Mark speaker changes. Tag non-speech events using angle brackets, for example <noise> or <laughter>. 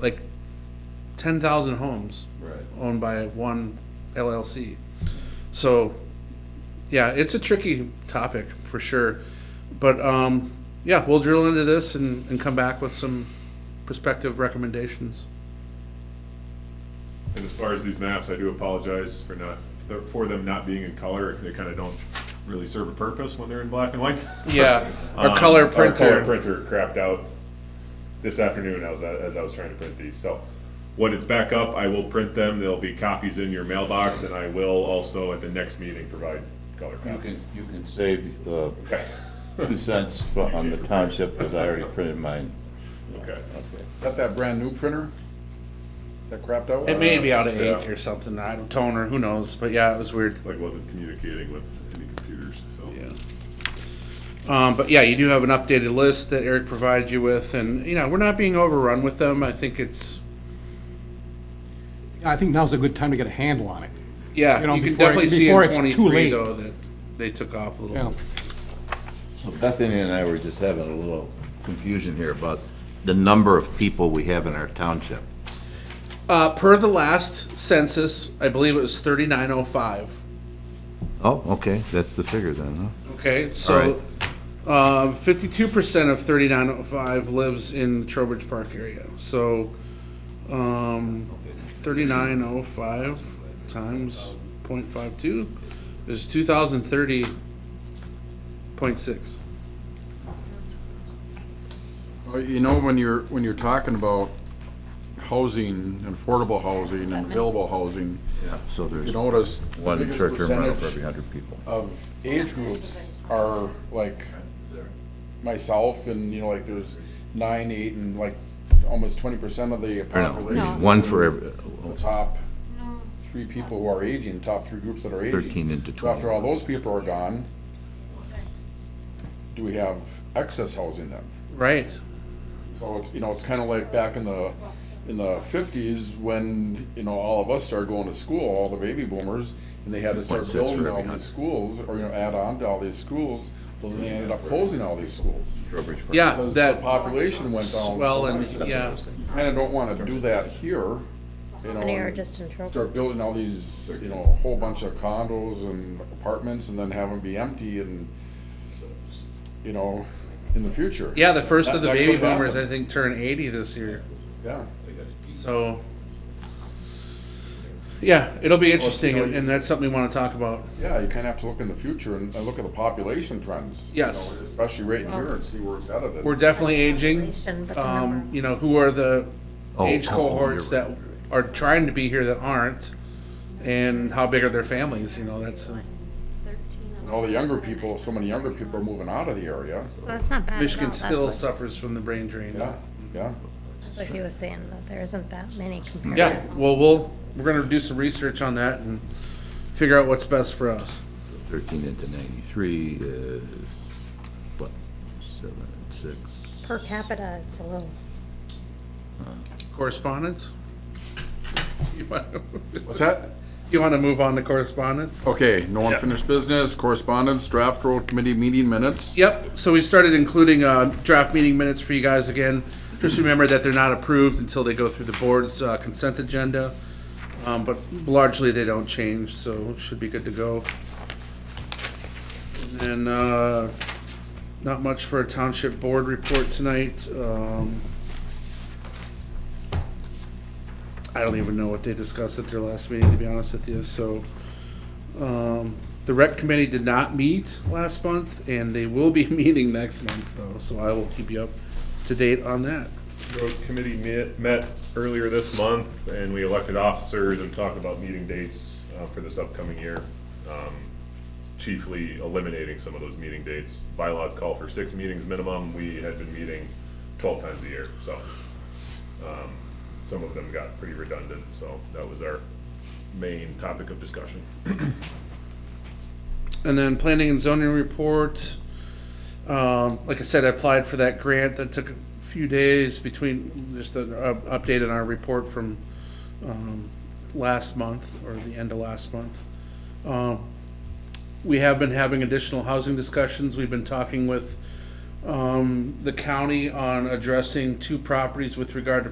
Speaker 1: like ten thousand homes
Speaker 2: Right.
Speaker 1: owned by one LLC. So, yeah, it's a tricky topic for sure. But um, yeah, we'll drill into this and, and come back with some prospective recommendations.
Speaker 3: And as far as these maps, I do apologize for not, for them not being in color. They kind of don't really serve a purpose when they're in black and white.
Speaker 1: Yeah, <laughs>
Speaker 3: Um,
Speaker 1: our color
Speaker 3: Our color
Speaker 1: printer.
Speaker 3: printer crapped out this afternoon as, I- as I was trying to print these, so. When it's back up, I will print them, there'll be copies in your mailbox, and I will also at the next meeting provide color
Speaker 2: You can,
Speaker 3: copies.
Speaker 2: you can save, uh,
Speaker 3: Okay,
Speaker 2: two cents fro- on the township, because I already printed mine.
Speaker 3: okay.
Speaker 4: Got that brand new printer that crapped out?
Speaker 1: It may be out of ink
Speaker 3: Yeah.
Speaker 1: or something. I don't toner. Who knows? But yeah, it was weird.
Speaker 3: It's like wasn't communicating with any computers, so.
Speaker 1: Yeah. Um, but yeah, you do have an updated list that Eric provided you with, and you know we're not being overrun with them. I think it's
Speaker 5: I think now's a good time to get a handle on it.
Speaker 1: yeah, you,
Speaker 5: You know,
Speaker 1: can
Speaker 5: before it-
Speaker 1: definitely see
Speaker 5: before
Speaker 1: in
Speaker 5: it's too
Speaker 1: twenty three
Speaker 5: late.
Speaker 1: though that they took off a little.
Speaker 5: Yeah.
Speaker 1: bit.
Speaker 2: So Bethany and I were just having a little confusion here about the number of people we have in our township.
Speaker 1: Uh, per the last census, I believe it was thirty nine oh five.
Speaker 2: Oh, okay, that's the figure then,
Speaker 1: Okay, so fifty two percent of thirty nine oh five lives in Trowbridge Park area. So um, thirty nine oh five times 0.52 is two thousand thirty point six.
Speaker 4: Well, You know, when you're, when you're talking about housing, and affordable housing and available housing,
Speaker 2: huh? So
Speaker 4: you
Speaker 2: there's
Speaker 4: notice the
Speaker 2: one
Speaker 4: biggest
Speaker 2: short-term rental for every
Speaker 4: percentage
Speaker 2: hundred people.
Speaker 4: of age groups are like myself and, you know, like there's nine, eight, and like almost twenty percent of the
Speaker 2: Or
Speaker 4: population.
Speaker 2: no,
Speaker 4: is
Speaker 2: one
Speaker 4: in
Speaker 2: for every,
Speaker 4: The top three people who are aging, top three groups that are aging.
Speaker 2: 13 into
Speaker 4: So
Speaker 2: 20.
Speaker 4: after all those people are gone, do we have excess housing then?
Speaker 1: Right.
Speaker 4: So it's, you know, it's kinda like back in the, in the fifties, when, you know, all of us started going to school, all the baby boomers, and they had to start
Speaker 2: 1.6 for
Speaker 4: building
Speaker 2: every
Speaker 4: all
Speaker 2: hundred.
Speaker 4: these schools, or, you know, add on to all these schools, well, then they ended up closing all these schools.
Speaker 2: Trowbridge Park.
Speaker 1: Yeah,
Speaker 4: Because the
Speaker 1: Uh, that
Speaker 4: population went down.
Speaker 1: well
Speaker 4: so
Speaker 1: and
Speaker 4: much.
Speaker 1: yeah.
Speaker 4: Kinda don't wanna do that here, you know.
Speaker 6: And you're
Speaker 4: and-
Speaker 6: just in trouble.
Speaker 4: start building all these, you know, a whole bunch of condos and apartments and then have them be empty and, you know, in the future.
Speaker 1: Yeah, the first of the
Speaker 4: That- that
Speaker 1: baby
Speaker 4: could
Speaker 1: boomers I
Speaker 4: happen.
Speaker 1: think turn eighty this year.
Speaker 4: Yeah.
Speaker 1: So, yeah, it'll be
Speaker 4: it's,
Speaker 1: interesting,
Speaker 4: you know,
Speaker 1: and and that's something we want to talk about.
Speaker 4: Yeah, you kind of have to look in the future and, and look at the population trends. you
Speaker 1: Yes.
Speaker 4: know, Especially right in here and see where it's headed.
Speaker 1: We're definitely aging.
Speaker 6: Population, but the
Speaker 1: Um,
Speaker 6: number.
Speaker 1: you know, who are the
Speaker 2: Oh,
Speaker 1: age
Speaker 2: oh, oh, you're
Speaker 1: cohorts that
Speaker 2: right.
Speaker 1: are trying to be here that aren't, and how big are their families? You know, that's
Speaker 4: And all the younger people, so many younger people are moving out of the area.
Speaker 6: So that's not bad at all.
Speaker 1: Michigan
Speaker 6: That's
Speaker 1: still
Speaker 6: what-
Speaker 1: suffers from the brain drain.
Speaker 4: Yeah, yeah.
Speaker 6: That's what he was saying, that there isn't that many compared.
Speaker 1: Yeah, well, we'll we're gonna do some research on that and figure out what's best for us.
Speaker 2: Thirteen into ninety-three is, what, seven, six?
Speaker 6: Per capita, it's a little,
Speaker 1: Correspondence. <laughs> You want to,
Speaker 4: What's that?
Speaker 1: you want to move on to correspondence?
Speaker 4: Okay, no unfinished business, correspondence, draft road committee meeting minutes.
Speaker 1: Yep, so we started including uh, draft meeting minutes for you guys again. Just remember that they're not approved until they go through the board's uh, consent agenda. Um, But largely, they don't change, so should be good to go. And then, uh, not much for a township board report tonight. Um, I don't even know what they discussed at their last meeting, to be honest with you, so. Um, The rec committee did not meet last month, and they will be <laughs> meeting next month, though, so I will keep you up to date on that.
Speaker 3: Road committee met, met earlier this month, and we elected officers and talked about meeting dates uh, for this upcoming year. Um, Chiefly eliminating some of those meeting dates. Bylaws call for six meetings minimum, we had been meeting twelve times a year, so. um, Some of them got pretty redundant, so that was our main topic of discussion.
Speaker 1: And then planning and zoning report. Um, like I said, I applied for that grant that took a few days between, just an uh, update on our report from, um, last month or the end of last month. Um, we have been having additional housing discussions. We've been talking with, um, the county on addressing two properties with regard to